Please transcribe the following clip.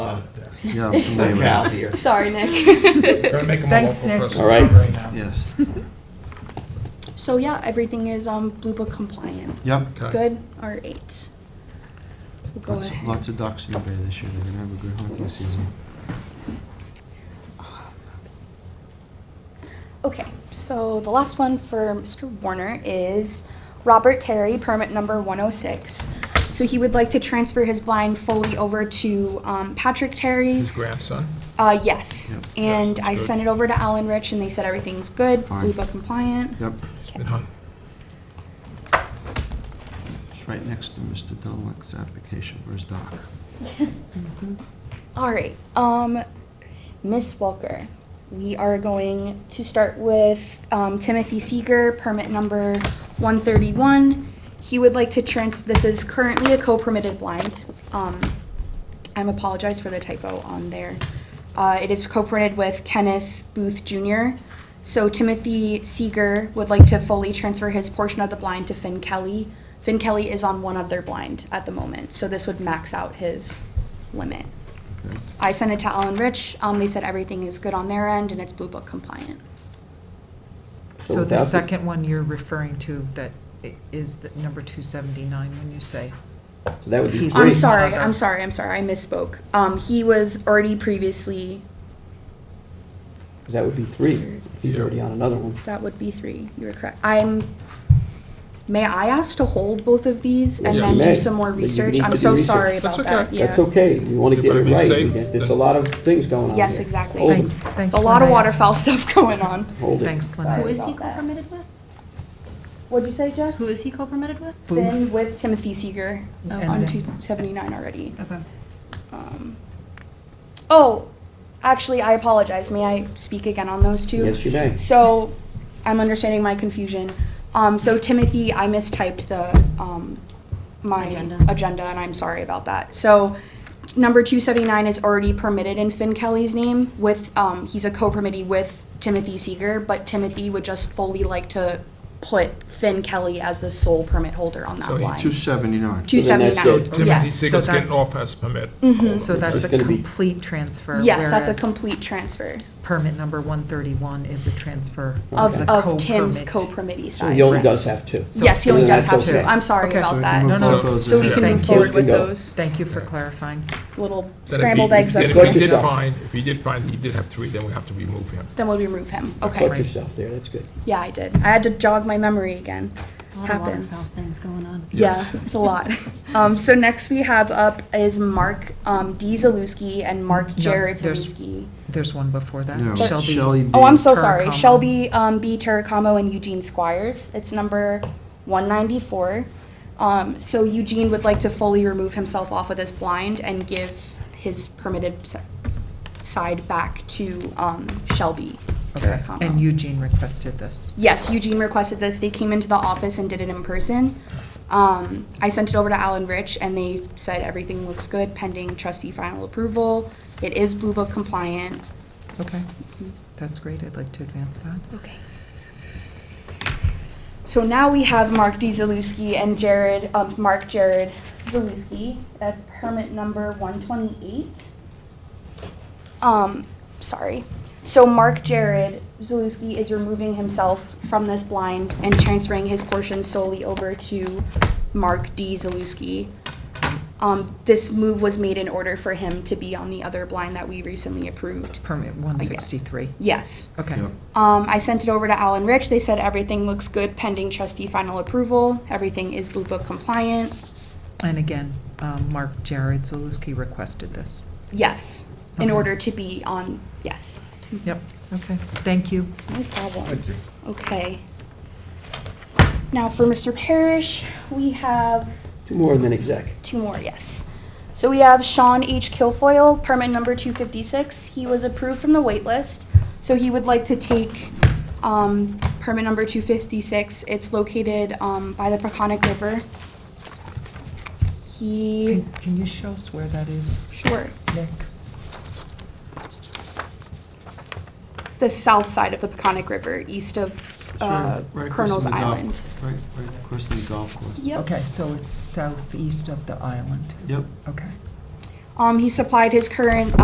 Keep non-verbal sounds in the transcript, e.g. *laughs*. *laughs* Yeah, I'm *laughs* familiar with Cal that. here. Sorry, Nick. *laughs* We're gonna make them a Thanks, local Nick. press All right. right now. Yes, So yeah, everything is um Blue Book compliant. yep. Okay. Good or eight. So we'll go Lots, ahead. lots of ducks in the bay this year, they're gonna have a good hunting season. Okay, so the last one for Mr. Warner is Robert Terry, permit number 106. So he would like to transfer his blind fully over to um, Patrick Terry. His grandson. Uh, yes. Mm-hmm. Yep. Yes, And that's I good. sent it over to Alan Rich and they said everything's good, Fine. Blue Book compliant. Yep, It's been hung. it's right next to Mr. Dunlap's application for his dock. All right, um, Miss Walker, we are going to start with um, Timothy Seeger, permit number 131. He would like to trans, this is currently a co-permitted blind. Um, I'm apologize for the typo on there. Uh, it is co-permitted with Kenneth Booth Jr. So Timothy Seeger would like to fully transfer his portion of the blind to Finn Kelly. Finn Kelly is on one other blind at the moment, so this would max out his limit. Okay. I sent it to Alan Rich. Um, they said everything is good on their end and it's Blue Book compliant. So the without second one you're referring to that i- is the number 279 when you say, So that would be He's- three. I'm sorry. Mother. I'm sorry. I'm sorry. I misspoke. Um, he was already previously. 'Cause That would be three. If he's already on another one. That would be three. You were correct. I'm. May I ask to hold both of these and Yes, then you do may, some more but you research? need I'm to so do research. sorry That's about that. okay. Yeah. That's okay. We want to Yeah, get but it it'd be right. safe. We got- There's a lot of things going on Yes, here. exactly. Hold it. thanks, thanks. It's a lot of Lanaya. waterfowl *laughs* stuff going on. Hold it. Thanks, Lanaya. Who is he about that. co-permitted with? What'd you say, Jess? Who is he co-permitted with? Finn with Timothy Seeger And oh, on then- 279 already. Okay. Um, oh, actually, I apologize. May I speak again on those two? Yes, you may. So, I'm understanding my confusion. Um, so Timothy, I mistyped the, um, my Agenda. agenda, and I'm sorry about that. So, number two seventy-nine is already permitted in Finn Kelly's name with, um, he's a co-permittee with Timothy Seeger, but Timothy would just fully like to put Finn Kelly as the sole permit holder on So that he Two line. seventy-nine. Two So then that's- seventy-nine, so Timothy yes. Seeger's So that's- getting off his permit. Mm-hmm. So that's It's a gonna be- complete transfer. Yes, that's a whereas complete transfer Permit number 131 is a transfer of of, Oh, the of Tim's co-permit. co-permitee So side. he only Correct. does have two. So- Yes, he only so does that's have two. okay. I'm sorry Okay. about So we that. can No, move no. those So in. we can Thank move you. forward with Go. those Thank you for clarifying. little Then if he- scrambled eggs Then up if Got he here. did yourself. find, if he did find, he did have three, then we have to remove him. Then we'll remove him. Put Okay. yourself there. That's good. Yeah, I did. I had to jog my memory again. A lot of waterfowl Happens. things going on. Yeah, Yes. it's a lot. Um, so next we have up is Mark, um, D. Zalewski and Mark No, Jared there's- Zalewski. There's one before No, that. Shelley Shelby, B. Oh, I'm so sorry. Terracamo. Shelby um, B. Terracamo and Eugene Squires. It's number 194. Um, so Eugene would like to fully remove himself off of this blind and give his permitted s- side back to um, Shelby Okay. Terracamo. and Eugene requested this. yes, Eugene requested this. They came into the office and did it in person. Um, I sent it over to Alan Rich, and they said everything looks good pending trustee final approval. It is Blue Book compliant. Okay, that's great. I'd like to advance that. Okay. So now we have Mark D. Zalewski and Jared, um, Mark Jared Zalewski. That's permit number one twenty-eight. Um, sorry. So Mark Jared Zalewski is removing himself from this blind and transferring his portion solely over to Mark D. Zalewski. Um, this move was made in order for him to be on the other blind that we recently approved. Permit 163. Yes. Okay. Yep. Um, I sent it over to Alan Rich. They said everything looks good pending trustee final approval. Everything is Blue Book compliant. And again, um, Mark Jared Zaluski requested this. Yes, in Okay. order to be on, yes. Yep, okay, thank you. No problem. Thank you. Okay. Now for Mr. Parrish, we have Two more and then exec. two more, yes. So we have Sean H. Kilfoyle, permit number 256. He was approved from the waitlist, so he would like to take um, permit number 256. It's located um, by the Peconic River. He, Can can you show us where that is, sure, Nick? it's the south side of the Peconic River, east of uh, Sure, right across Colonel's from the golf- Island. Right, right across from the golf course. Yep. Okay, so it's southeast of the island, Yep. okay. Um, He supplied his current